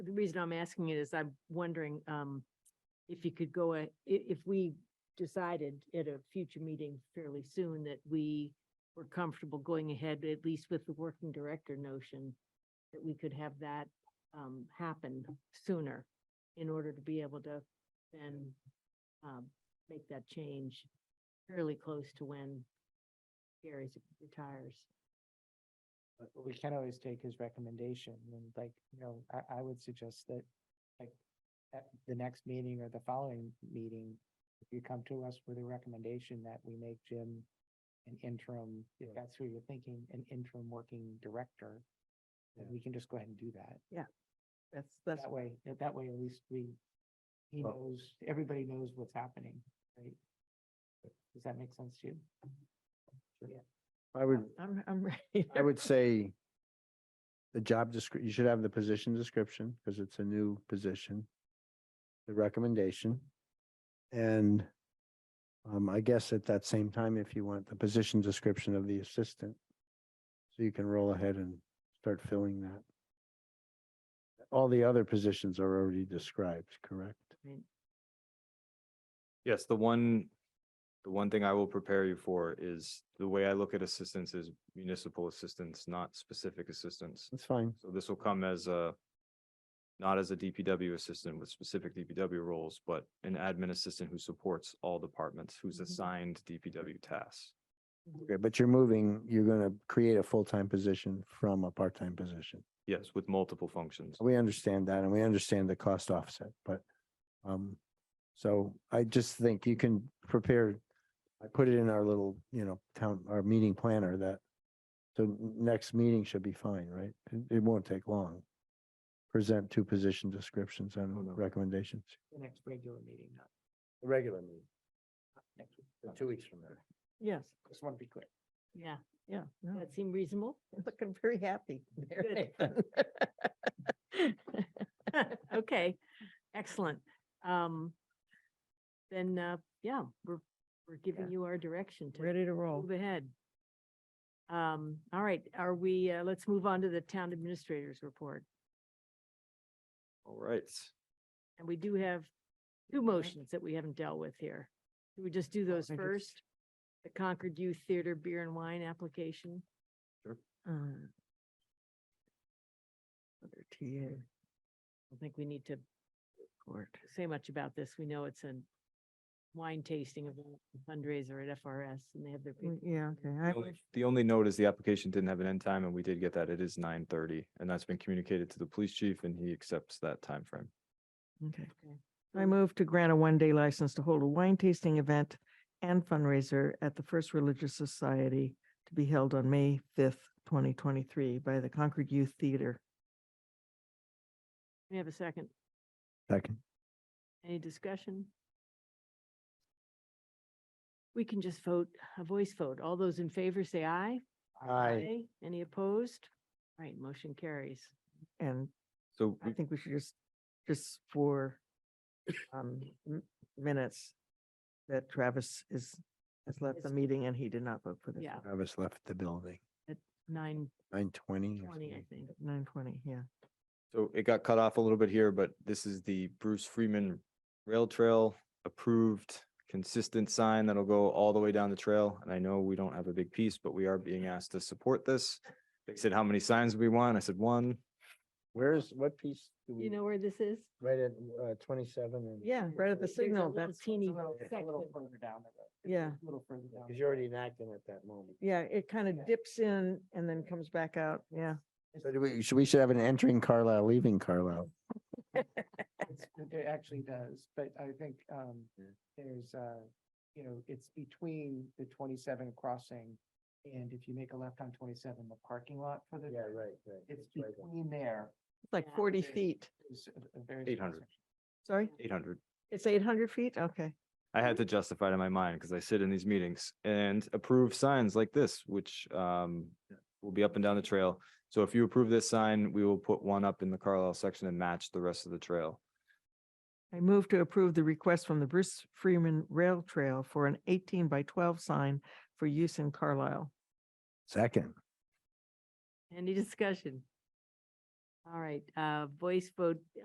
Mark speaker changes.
Speaker 1: the reason I'm asking it is I'm wondering, um, if you could go, a- i- if we decided at a future meeting fairly soon that we were comfortable going ahead, at least with the working director notion, that we could have that, um, happen sooner in order to be able to then, um, make that change fairly close to when Gary retires.
Speaker 2: But we can always take his recommendation and like, you know, I, I would suggest that like at the next meeting or the following meeting, if you come to us with a recommendation that we make Jim an interim, if
Speaker 3: Yeah.
Speaker 2: that's who you're thinking, an interim working director, then
Speaker 3: Yeah.
Speaker 2: we can just go ahead and do that.
Speaker 4: That's, that's,
Speaker 2: That way, that way at least we, he
Speaker 3: Well-
Speaker 2: knows, everybody knows what's happening, right? Does that make sense to you?
Speaker 3: I would,
Speaker 1: I'm, I'm ready.
Speaker 3: I would say the job descri, you should have the position description because it's a new position. The recommendation. And um, I guess at that same time, if you want the position description of the assistant. So you can roll ahead and start filling that. All the other positions are already described, correct?
Speaker 5: Yes, the one, the one thing I will prepare you for is the way I look at assistance is municipal assistance, not specific assistance.
Speaker 3: That's fine.
Speaker 5: So this will come as a, not as a DPW assistant with specific DPW roles, but an admin assistant who supports all departments, who's
Speaker 1: Mhm.
Speaker 5: assigned DPW tasks.
Speaker 3: Okay, but you're moving, you're gonna create a full-time position from a part-time position.
Speaker 5: Yes, with multiple functions.
Speaker 3: We understand that and we understand the cost offset, but, um, so I just think you can prepare. I put it in our little, you know, town, our meeting planner that, so n- next meeting should be fine, right? It, it won't take long. Present two position descriptions
Speaker 2: Oh,
Speaker 3: and
Speaker 2: no.
Speaker 3: recommendations.
Speaker 2: The next regular meeting, not
Speaker 3: Regular meeting,
Speaker 2: next week.
Speaker 3: two weeks from now.
Speaker 1: Yes,
Speaker 2: Just want to be clear.
Speaker 1: yeah,
Speaker 4: yeah, no,
Speaker 1: that seemed reasonable.
Speaker 4: I'm looking very happy. there,
Speaker 1: Good.
Speaker 4: Nathan.
Speaker 1: Okay, excellent. Um, then, uh, yeah, we're, we're
Speaker 4: Yeah.
Speaker 1: giving you our direction to
Speaker 4: Ready to roll.
Speaker 1: move ahead. Um, all right, are we, uh, let's move on to the town administrator's report.
Speaker 5: All right.
Speaker 1: And we do have two motions that we haven't dealt with here. Do we just do those
Speaker 2: I just-
Speaker 1: first? The Concord Youth Theater Beer and Wine application?
Speaker 4: Uh, Other TA
Speaker 1: I think we need to
Speaker 4: court.
Speaker 1: say much about this. We know it's a wine tasting event fundraiser at FRS and they have their. people
Speaker 4: Mm, Yeah, okay. I
Speaker 5: The only- The only note is the application didn't have an end time and we did get that. It is nine thirty and that's been communicated to the police chief and he accepts that time frame.
Speaker 4: Okay.
Speaker 1: Okay.
Speaker 4: I move to grant a one-day license to hold a wine tasting event and fundraiser at the First Religious Society to be held on May fifth, twenty twenty-three by the Concord Youth Theater.
Speaker 1: We have a second.
Speaker 3: Second.
Speaker 1: Any discussion? We can just vote, a voice vote. All those in favor say aye.
Speaker 3: Aye.
Speaker 1: Any opposed? All Right, motion carries.
Speaker 4: And
Speaker 5: So
Speaker 4: I
Speaker 5: we-
Speaker 4: think we should just, just for um, m- minutes that Travis is, has left the
Speaker 1: Is-
Speaker 4: meeting and he did not vote for this.
Speaker 1: Yeah,
Speaker 3: Travis left the building,
Speaker 1: nine
Speaker 3: nine twenty.
Speaker 1: twenty, I think.
Speaker 4: Nine twenty, yeah.
Speaker 5: So it got cut off a little bit here, but this is the Bruce Freeman Rail Trail approved consistent sign that'll go all the way down the trail. And I know we don't have a big piece, but we are being asked to support this. They said, how many signs we want? I said, one.
Speaker 3: Where's, what piece? do we-
Speaker 1: You know where this is?
Speaker 3: Right at uh twenty-seven and.
Speaker 4: Yeah, right at the
Speaker 1: There's a
Speaker 4: signal,
Speaker 1: little
Speaker 4: that's,
Speaker 1: Teeny
Speaker 2: It's a little- it's a little
Speaker 1: section.
Speaker 2: further down the road. It's
Speaker 4: Yeah.
Speaker 2: A little further down.
Speaker 3: Cause you're already enacting at that moment.
Speaker 4: yeah, it kind of dips in and then comes back out, yeah.
Speaker 3: So do we, should, we should have an entering Carlisle, leaving Carlisle.
Speaker 2: It's- It actually does, but I think um there's uh, you know, it's between the twenty-seven crossing. And if you make a left on twenty-seven, the parking lot for the.
Speaker 3: right, right.
Speaker 2: It's between there.
Speaker 4: It's like
Speaker 1: Yeah.
Speaker 4: forty
Speaker 2: There's-
Speaker 4: feet.
Speaker 2: there's a- a very
Speaker 5: 800.
Speaker 2: small section.
Speaker 4: Sorry,
Speaker 5: Eight hundred.
Speaker 4: it's eight hundred feet? Okay.
Speaker 5: I had to justify it in my mind because I sit in these meetings and approve signs like this, which um will be up and down the trail. So if you approve this sign, we will put one up in the Carlisle section and match the rest of the trail.
Speaker 4: I move to approve the request from the Bruce Freeman Rail Trail for an eighteen by twelve sign for use in Carlisle.
Speaker 3: Second,
Speaker 1: Any discussion? All right, uh, voice vote